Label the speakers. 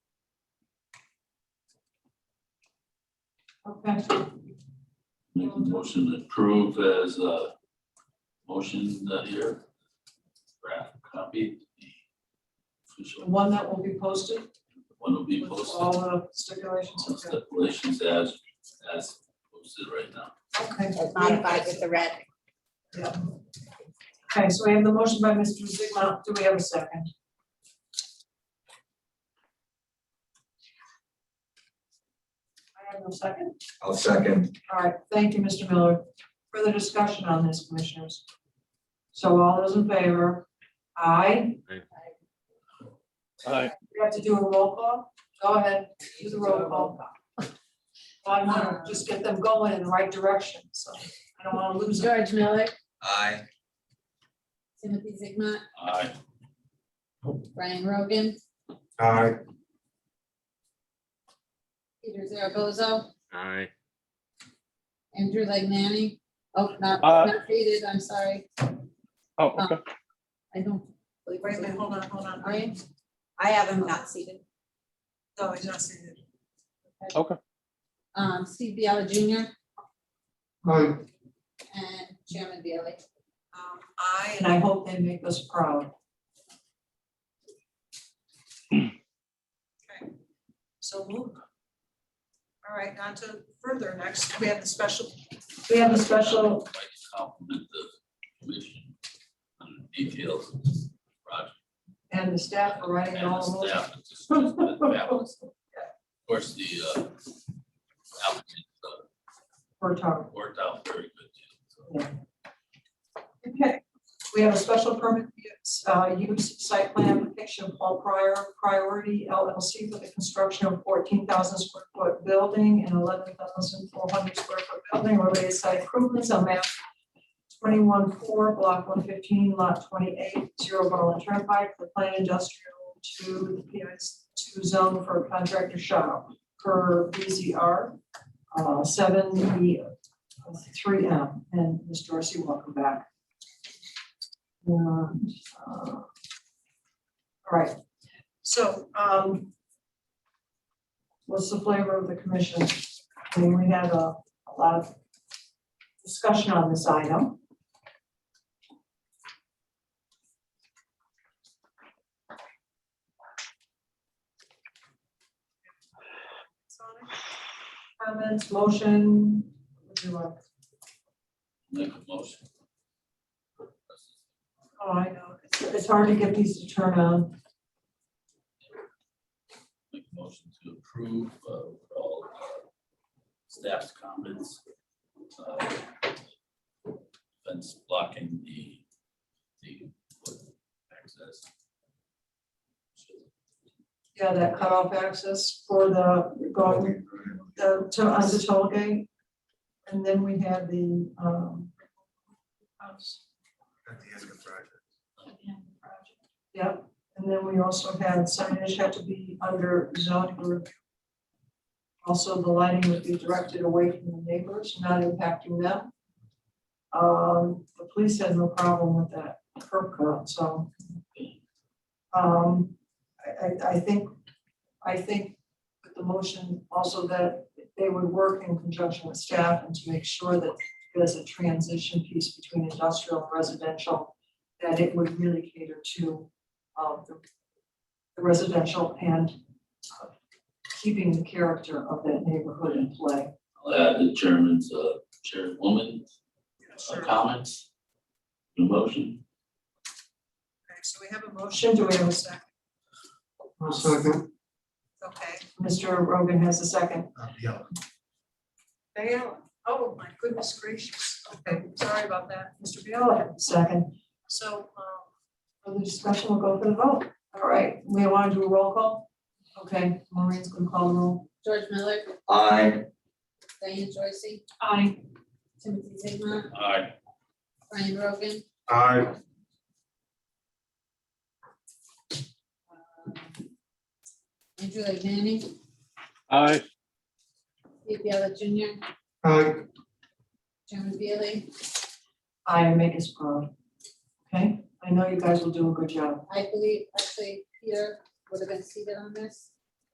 Speaker 1: Okay,
Speaker 2: Make a motion to approve as a motion uh, here. Draft copy. Official,
Speaker 1: one that will be posted
Speaker 2: one will be
Speaker 1: with all
Speaker 2: posted,
Speaker 1: the stipulations,
Speaker 2: some
Speaker 1: okay.
Speaker 2: stipulations as, as posted right now.
Speaker 1: Okay,
Speaker 3: modified with the red.
Speaker 1: okay, so we have the motion by Mr. Zigma, do we have a second? I have no second,
Speaker 4: I'll second.
Speaker 1: all right, thank you, Mr. Miller. Further discussion on this, commissioners? So all those in favor? Aye,
Speaker 5: Aye.
Speaker 1: we have to do a roll call, go ahead, do the roll call. I wanna just get them going in the right direction, so I don't wanna lose them.
Speaker 3: George Miller,
Speaker 4: Aye.
Speaker 3: Timothy Zigma,
Speaker 2: Aye.
Speaker 3: Brian Rogan,
Speaker 4: Aye.
Speaker 3: Peter Zaragoza,
Speaker 6: Aye.
Speaker 3: Andrew Legnani. Oh, not,
Speaker 5: Uh,
Speaker 3: not dated, I'm sorry. Um,
Speaker 5: Oh, okay.
Speaker 3: I don't believe
Speaker 1: Wait, wait,
Speaker 3: I
Speaker 1: hold on, hold on, are you?
Speaker 3: I have him not seated.
Speaker 1: No, he's not seated.
Speaker 3: Um, Steve Biella Jr.
Speaker 4: Aye.
Speaker 3: and Chairman Bailey.
Speaker 1: Um, I, and I hope they make us proud. Okay, so moved. All right, on to further, next, we have the special. We have the special,
Speaker 2: I'd like to Compliment the commission on the details of this project.
Speaker 1: and the staff are writing
Speaker 2: and the
Speaker 1: all those.
Speaker 2: staff. It's just- it's been fabulous. Of course, the uh, applicant uh,
Speaker 1: We're talking.
Speaker 2: worked out very good. too. So
Speaker 1: Okay, we have a special permit use, uh, use site plan application, Paul Prior, Priority LLC for the construction of fourteen thousand square foot building and eleven thousand four hundred square foot building related site improvements on map twenty-one four, block one fifteen, lot twenty-eight, zero Berlin Turnpike, the plan industrial to the PIS two zone for contractor shop per BZR uh, seven E three M. And Ms. Dorsey, welcome back. And, uh, All right, so, um, what's the flavor of the commission? I mean, we had a, a lot of discussion on this item. Comments, motion, what do you want?
Speaker 2: Make a motion.
Speaker 1: Oh, I know, it's, it's hard to get these to turn on.
Speaker 2: Make a motion to approve uh, with all uh, staff's comments. uh, Fence blocking the, the access.
Speaker 1: Yeah, that cutoff access for the, going, the, to, on the toll gate. And then we had the, um. house at the end of the project. Yep, and then we also had signage had to be under zoning review. Also, the lighting would be directed away from the neighbors, not impacting them. Um, the police had no problem with that curb cut, so. Um, I, I, I think, I think with the motion also that they would work in conjunction with staff and to make sure that there's a transition piece between industrial and residential, that it would really cater to um, the the residential and uh, keeping the character of that neighborhood in play.
Speaker 2: I'll add the chairman's, uh, chairwoman uh, comments. The motion.
Speaker 1: so we have a motion. Do we have a second?
Speaker 4: second.
Speaker 1: Okay. Mr. Rogan has a second.
Speaker 4: Yeah.
Speaker 1: Biella, oh my goodness gracious, okay, sorry about that, Mr. Biella. Second. So, um, for the discussion, we'll go for the vote. All right, we want to do a roll call? Okay, Maureen's gonna call the roll.
Speaker 3: George Miller,
Speaker 4: Aye.
Speaker 3: Diane Joycey,
Speaker 1: Aye.
Speaker 3: Timothy Zigma,
Speaker 2: Aye.
Speaker 3: Brian Rogan,
Speaker 4: Aye.
Speaker 3: um, Andrew Legnani,
Speaker 5: Aye.
Speaker 3: Steve Biella Jr.,
Speaker 4: Aye.
Speaker 3: Chairman Bailey.
Speaker 1: Aye, and make us proud. Okay, I know you guys will do a good job.
Speaker 3: I believe actually Peter would have been seated on this.